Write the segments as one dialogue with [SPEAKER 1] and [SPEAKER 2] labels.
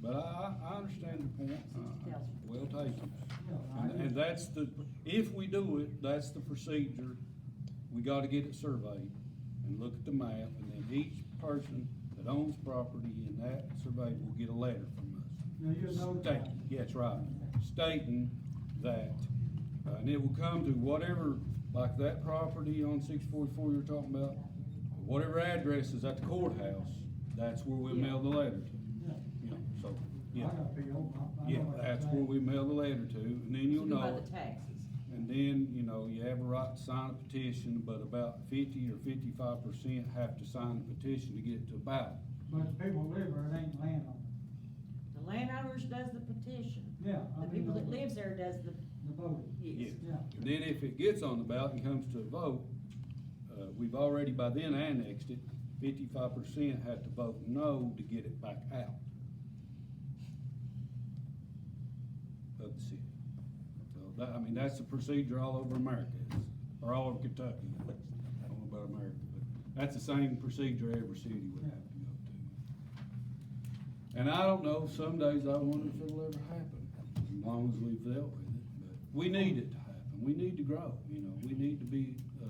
[SPEAKER 1] But I, I, I understand your point. Uh,
[SPEAKER 2] 60,000.
[SPEAKER 1] Well taken. And, and that's the, if we do it, that's the procedure. We gotta get it surveyed and look at the map, and then each person that owns property in that survey will get a letter from us.
[SPEAKER 3] Now, you're notified.
[SPEAKER 1] Stating, yeah, that's right, stating that, uh, and it will come to whatever, like that property on six forty-four you're talking about, whatever address is at the courthouse, that's where we mail the letter to,
[SPEAKER 3] Yeah.
[SPEAKER 1] you know, so,
[SPEAKER 3] I
[SPEAKER 1] yeah.
[SPEAKER 3] got Bill, I- I know
[SPEAKER 1] Yeah,
[SPEAKER 3] what you're
[SPEAKER 1] that's
[SPEAKER 3] saying.
[SPEAKER 1] where we mail the letter to, and then you'll
[SPEAKER 2] You
[SPEAKER 1] know
[SPEAKER 2] buy
[SPEAKER 1] it.
[SPEAKER 2] the taxes.
[SPEAKER 1] And then, you know, you have a right to sign a petition, but about fifty or fifty-five percent have to sign the petition to get it to a ballot.
[SPEAKER 3] But the people live there, it ain't land on
[SPEAKER 2] The landowners does the petition.
[SPEAKER 3] it. Yeah, I
[SPEAKER 2] The
[SPEAKER 3] mean, uh,
[SPEAKER 2] people that
[SPEAKER 3] the
[SPEAKER 2] lives there does the,
[SPEAKER 3] voting.
[SPEAKER 2] yes.
[SPEAKER 3] Yeah.
[SPEAKER 1] And then if it gets on the ballot and comes to a vote, uh, we've already by then annexed it, fifty-five percent have to vote no to get it back out of the city. So that, I mean, that's the procedure all over America, it's- or all over Kentucky, at least. I don't know about America, but that's the same procedure every city would have to go to. And I don't know, some days I wonder if it'll ever happen, as long as we've dealt with it, but we need it to happen, we need to grow, you know, we need to be, uh,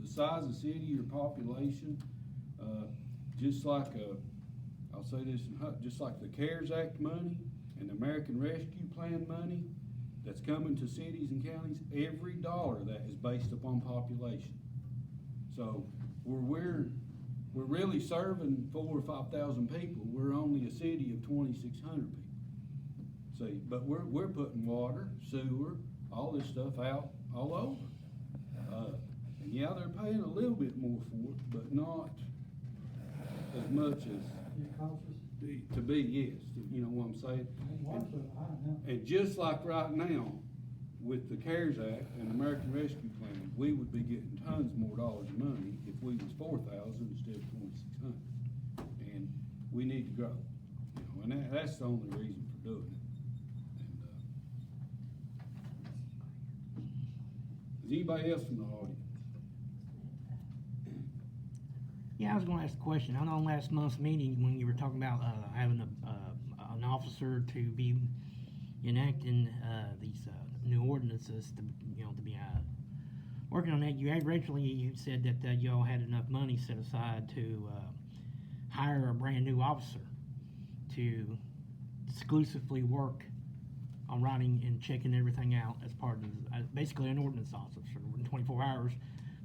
[SPEAKER 1] the size of city, your population, uh, just like, uh, I'll say this, in hu- just like the CARES Act money and the American Rescue Plan money that's coming to cities and counties, every dollar of that is based upon population. So we're, we're, we're really serving four or five thousand people. We're only a city of twenty-six hundred people. See, but we're, we're putting water, sewer, all this stuff out all over. Uh, and yeah, they're paying a little bit more for it, but not as much as
[SPEAKER 3] You cautious?
[SPEAKER 1] the- to be, yes, you know what I'm saying?
[SPEAKER 3] It was a high number.
[SPEAKER 1] And just like right now, with the CARES Act and American Rescue Plan, we would be getting tons more dollars of money if we was four thousand instead of twenty-six hundred. And we need to grow, you know, and that, that's the only reason for doing it. And, uh, Is anybody else in the audience?
[SPEAKER 4] Yeah, I was gonna ask a question. I know in last month's meeting, when you were talking about, uh, having a, uh, an officer to be enacting, uh, these, uh, new ordinances to, you know, to be, uh, working on that, you had originally, you said that, uh, y'all had enough money set aside to, uh, hire a brand new officer to exclusively work on writing and checking everything out as part of, uh, basically an ordinance officer in twenty-four hours.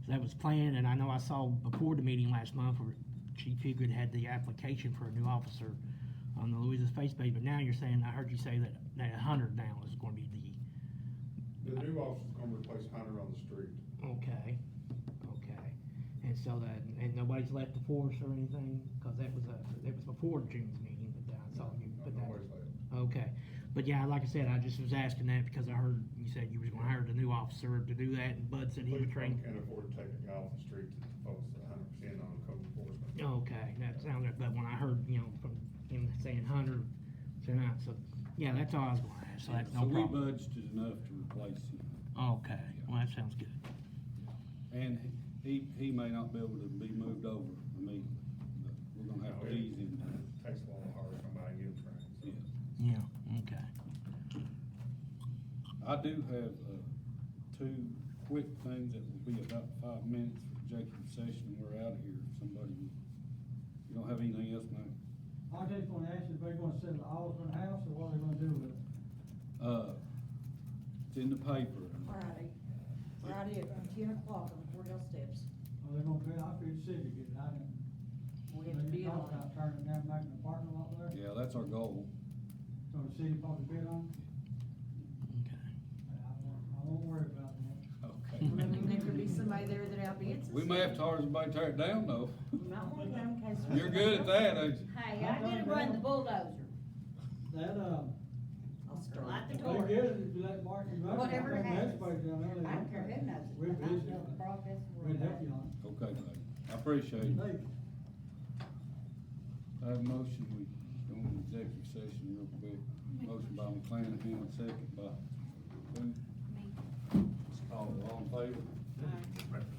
[SPEAKER 4] So that was planned, and I know I saw before the meeting last month where Chief Huggood had the application for a new officer on the Louisa Space Base, but now you're saying, I heard you say that, that a hundred now is gonna be the,
[SPEAKER 5] The new officer's gonna replace Hunter on the street.
[SPEAKER 4] okay, okay. And so that, and nobody's left the force or anything, cause that was a, that was before June's meeting, but then I saw you,
[SPEAKER 5] No,
[SPEAKER 4] but
[SPEAKER 5] no
[SPEAKER 4] that,
[SPEAKER 5] worries about it.
[SPEAKER 4] okay. But yeah, like I said, I just was asking that because I heard you said you was gonna hire the new officer to do that, and Bud said he
[SPEAKER 5] Police
[SPEAKER 4] would train.
[SPEAKER 5] Can't afford to take a guy off the street to focus a hundred percent on code enforcement.
[SPEAKER 4] Okay, that sounds like, but when I heard, you know, from him saying Hunter tonight, so, yeah, that's all I was gonna ask, so that's no
[SPEAKER 1] So we
[SPEAKER 4] problem.
[SPEAKER 1] budgeted enough to replace him.
[SPEAKER 4] Okay, well, that sounds good.
[SPEAKER 1] And he, he may not be able to be moved over immediately, but we're gonna
[SPEAKER 5] Oh,
[SPEAKER 1] have to ease him.
[SPEAKER 5] Takes a while to hire somebody and get him trained, so.
[SPEAKER 1] Yeah.
[SPEAKER 4] Yeah, okay.
[SPEAKER 1] I do have, uh, two quick things that will be about five minutes for executive session, we're out of here, if somebody, you don't have anything else, Mike?
[SPEAKER 3] I just wanna ask you, if they gonna sell the Osborne house or what they gonna do with it?
[SPEAKER 1] Uh, it's in the paper,
[SPEAKER 2] Friday, Friday at ten o'clock on the courthouse steps.
[SPEAKER 3] Are they gonna pay, I feel sick of it, I didn't.
[SPEAKER 2] We have to
[SPEAKER 3] They
[SPEAKER 2] bid
[SPEAKER 3] talked
[SPEAKER 2] on
[SPEAKER 3] about turning it down, making a parking lot there,
[SPEAKER 1] yeah, that's our goal.
[SPEAKER 3] so the city probably bid on it.
[SPEAKER 4] Okay.
[SPEAKER 3] I won't, I won't worry about that.
[SPEAKER 1] Okay.
[SPEAKER 2] it. Maybe there could be somebody there that outbids us.
[SPEAKER 1] We may have to hire somebody to tear it down, though.
[SPEAKER 2] You might want to come in case.
[SPEAKER 1] You're good at that, ain't you?
[SPEAKER 2] Hey, I did run the bulldozer.
[SPEAKER 3] That, uh,
[SPEAKER 2] I'll start. Light the
[SPEAKER 3] They
[SPEAKER 2] torch.
[SPEAKER 3] get it, if you let Martin run. it, I
[SPEAKER 6] Whatever
[SPEAKER 3] think
[SPEAKER 6] it
[SPEAKER 3] that's
[SPEAKER 6] has.
[SPEAKER 3] probably down there, they
[SPEAKER 6] I don't
[SPEAKER 3] want
[SPEAKER 6] care
[SPEAKER 3] that.
[SPEAKER 6] who knows it,
[SPEAKER 3] We'll
[SPEAKER 6] but I
[SPEAKER 3] visit
[SPEAKER 6] know
[SPEAKER 3] it.
[SPEAKER 6] the process we're
[SPEAKER 3] We'd help
[SPEAKER 6] in.
[SPEAKER 3] you on it.
[SPEAKER 1] Okay, buddy, I appreciate it.
[SPEAKER 3] Thank you.
[SPEAKER 1] I have a motion, we go into executive session real quick. Motion by McLean, second by who? All, all in favor?
[SPEAKER 2] All right.